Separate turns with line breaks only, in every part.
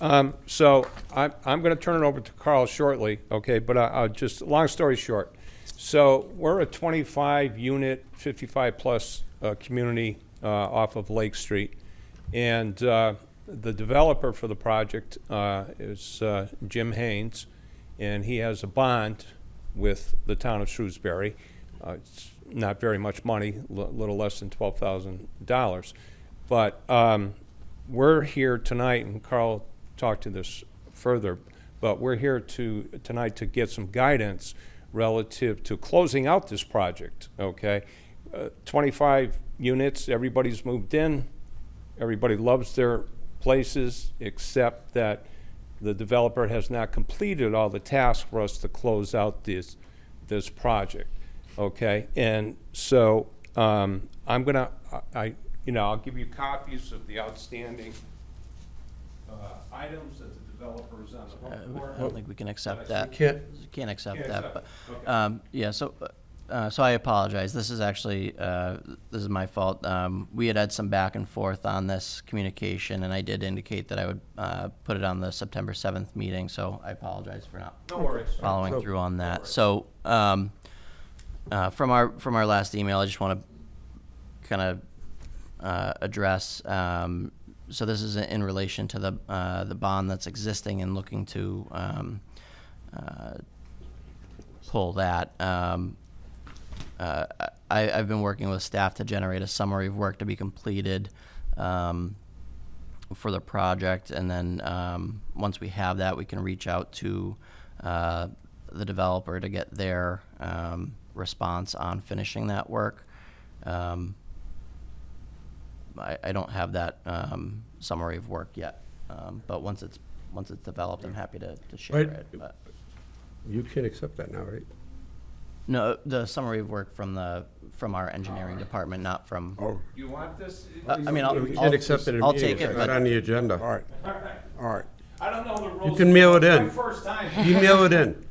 Um, So I'm, I'm going to turn it over to Carl shortly, okay? But I, I'll just, long story short. So we're a 25-unit, 55-plus community uh, off of Lake Street. And uh, the developer for the project uh, is uh, Jim Haynes, and he has a bond with the town of Shrewsbury. Uh, It's not very much money, a little less than $12,000. But um, we're here tonight, and Carl talked to this further, but we're here to, tonight to get some guidance relative to closing out this project, okay? Uh, 25 units, everybody's moved in, everybody loves their places, except that the developer has not completed all the tasks for us to close out this, this project, okay? And so, um, I'm gonna, I- I, you know, I'll give you copies of the outstanding, uh, items that the developer's on the
Uh,
hook for.
I don't think we can accept
But I
that.
see-
Can't-
Can't accept
Can't
that, but,
accept, okay.
um, yeah, so, uh, so I apologize. This is actually, uh, this is my fault. Um, we had had some back and forth on this communication, and I did indicate that I would, uh, put it on the September seventh meeting, so I apologize for not
No worries.
following
So-
through on that. So, um, uh, from our, from our last email, I just want to kind of, uh, address, um, so this is in relation to the, uh, the bond that's existing and looking to, um, uh, pull that. Um, uh, I, I've been working with staff to generate a summary of work to be completed, um, for the project, and then um, once we have that, we can reach out to uh, the developer to get their um, response on finishing that work. Um, I, I don't have that um, summary of work yet, um, but once it's once it's developed, I'm happy to, to share
Right.
it. But
You can't accept that now, right?
no, the summary of work from the from our engineering department, not from.
Oh,
You want this?
Uh, I mean, I'll,
You
I'll,
can't accept it in a meeting.
I'll take it,
It's not
but
on the agenda.
all right,
All right.
all right.
I don't know the rules.
can mail it in.
My first time.
Email it in.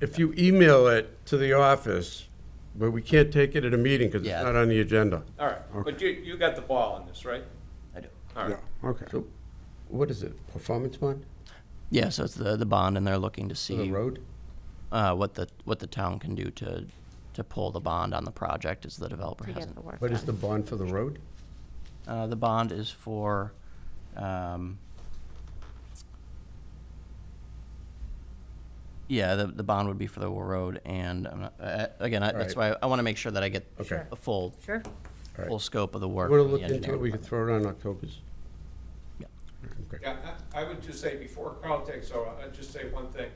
If you email it to the office, but we can't take it at a meeting because it's
Yeah.
not on the agenda.
All right, but you, you got the ball on this, right?
I do.
All
Yeah,
right.
okay.
So, what is it, performance bond
Yeah, so it's the, the bond, and they're looking to
for the
see
road?
uh, what the what the town can do to to pull the bond on the project as the developer
to get
hasn't.
the work
What is the
done.
bond for the road?
Uh, the bond is for um, yeah, the, the bond would be for the road, and I'm not, uh, again, I, that's
Right.
why I want to make sure that I get
Okay. Sure.
a full
Sure.
All
full
right.
scope of the work.
Want to
from the
look into
engineering
it? We could throw it on October's.
Yeah.
Okay.
Yeah, I I would just say, before Carl takes over, I'd just say one thing.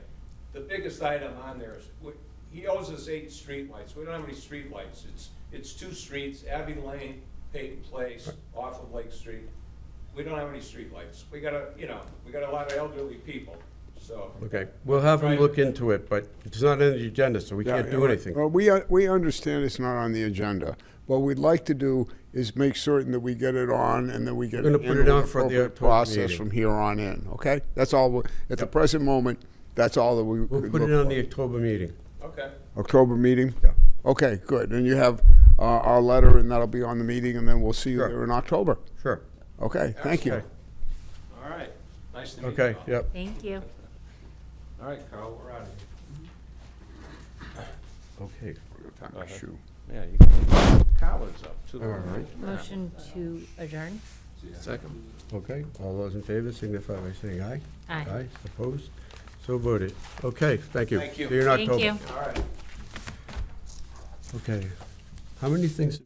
The biggest item on there is, we- he owes us eight streetlights. We don't have any streetlights. It's, it's two streets, Abbey Lane, Peyton Place, off of Lake Street. We don't have any streetlights. We got a, you know, we got a lot of elderly people, so.
Okay, we'll have them
Right.
look into it, but it's not on the agenda, so we
Yeah,
can't do
yeah,
anything.
Well, we, uh, we understand it's not on the agenda. What we'd like to do is make certain that we get it on and that we get
We're gonna
it
put
in
it
with
on for the
appropriate
October
process
meeting.
from here on in, okay? That's all, we- at the present moment, that's all that we.
We'll
could
put it
look
on
for.
the October meeting.
Okay.
October meeting?
Yeah.
Okay, good. And you have uh, our letter and that'll be on the meeting and then we'll see you
Sure.
there in October.
Sure.
Okay, thank you.
Okay.
All right. Nice to meet you.
Okay,
all.
yep.
Thank you.
All right, Carl, we're out of here.
Okay.
Shoe.
Yeah, you can, Howard's up too.
All right.
Motion to adjourn?
Okay, all those in favor signify by saying aye.
Aye.
Aye, opposed, so voted. Okay, thank you.
Thank you.
See you in
Thank
October.
you.
All right.
Okay. How many things?